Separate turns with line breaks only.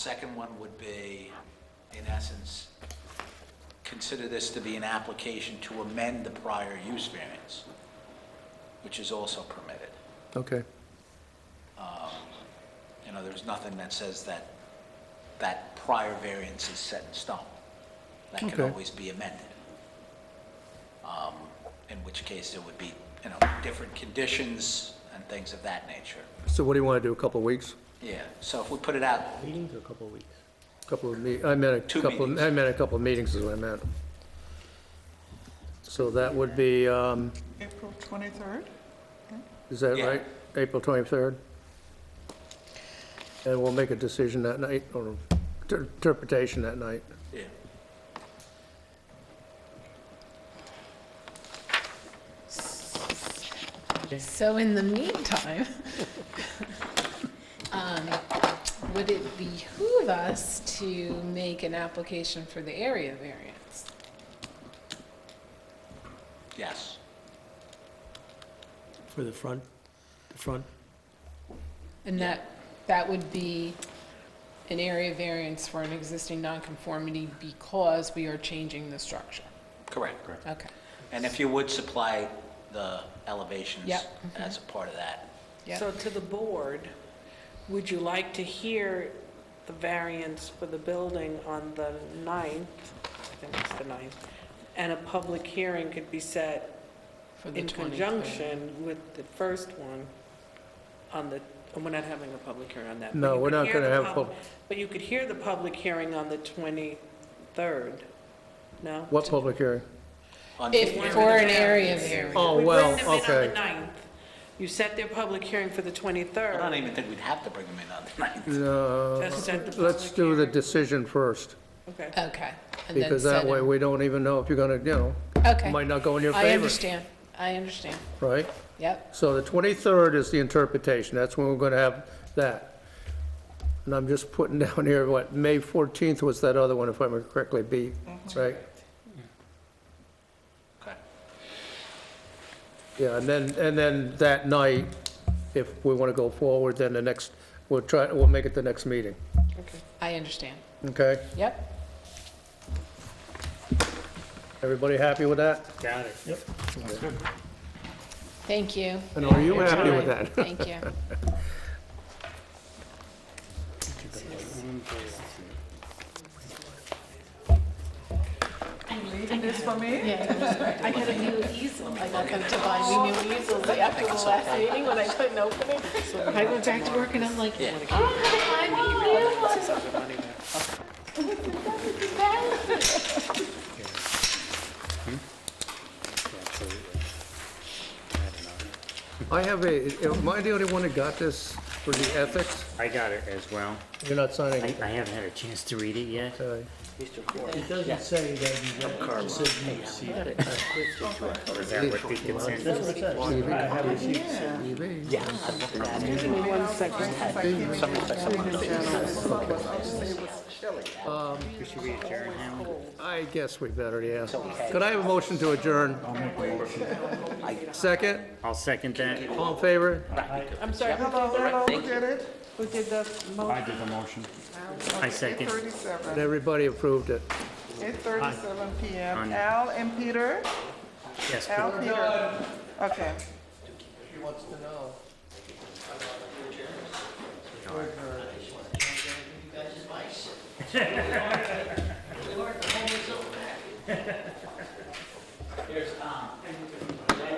Second one would be, in essence, consider this to be an application to amend the prior use variance, which is also permitted.
Okay,
You know, there's nothing that says that that prior variance is set in stone. That can
Okay.
always be amended. Um, In which case, there would be, you know, different conditions and things of that nature.
so what do you want to do, a couple of weeks?
Yeah, so if we put it out,
Meetings or a couple of weeks?
Couple of me, I meant
Two
a couple,
meetings.
I meant a couple of meetings is what I meant. So that would be, um,
April 23rd?
is that
Yeah.
right? April 23rd? And we'll make a decision that night, or inter- interpretation that night.
yeah,
So in the meantime, um, would it behoove us to make an application for the area variance?
yes.
For the front, the front?
And that, that would be an area variance for an existing nonconformity because we are changing the structure?
Correct. Correct.
Okay,
And if you would supply the elevations
Yep.
as a part of that.
yeah,
So to the board, would you like to hear the variance for the building on the 9th? I think it's the 9th. And a public hearing could be set
for the
in
23rd.
conjunction with the first one on the, and we're not having a public hearing on that. but
No,
you
we're
could
not
hear
gonna
the
have a
pub-
pub-
But you could hear the public hearing on the 23rd, no?
What public hearing?
on-
If, for an area variance.
Oh,
We bring
well,
them in
okay.
on the 9th. You set their public hearing for the
I
23rd.
don't even think we'd have to bring them in on the ninth.
No,
Just set the
Uh, let's
public
do the
hearing.
decision first,
Okay.
Okay. and then
because that
set it-
way we don't even know if you're going to, you know,
Okay.
might not go in your
I
favor,
understand, I understand,
right?
yep.
So the 23rd is the interpretation, that's when we're going to have that. And I'm just putting down here, what, May 14th was that other one, if I remember correctly, B, right?
Okay.
Yeah, and then, and then that night, if we want to go forward, then the next, we'll try, we'll make it the next meeting,
I understand.
okay?
Yep.
Everybody happy with that?
Got it. Yep.
Thank you.
And are you
Your
happy with
time.
that?
Thank you.
Reading this for me?
I got a new easel. I got them to buy me new easels after the last meeting when I couldn't open it. I went back to work and I'm like, "Oh, I don't have to buy me
I have a, am I the only one that got this for the ethics?
I got it as well.
You're not signing
I,
it,
I haven't had a chance to read it yet.
okay?
It doesn't say that you got, it says you received it.
Or is that what the consensus?
That's what it says. I have received it.
Should we adjourn now?
I guess we better, yeah. Could I have a motion to adjourn? Second,
I'll second that.
all in favor?
I'm sorry, who
Hello, hello, who did it? Who did the motion?
did the motion. I second.
8:37.
And everybody approved it.
8:37 PM.
On.
Al and Peter?
Yes,
Al, Peter? Okay.
He wants to know.
Here's Tom.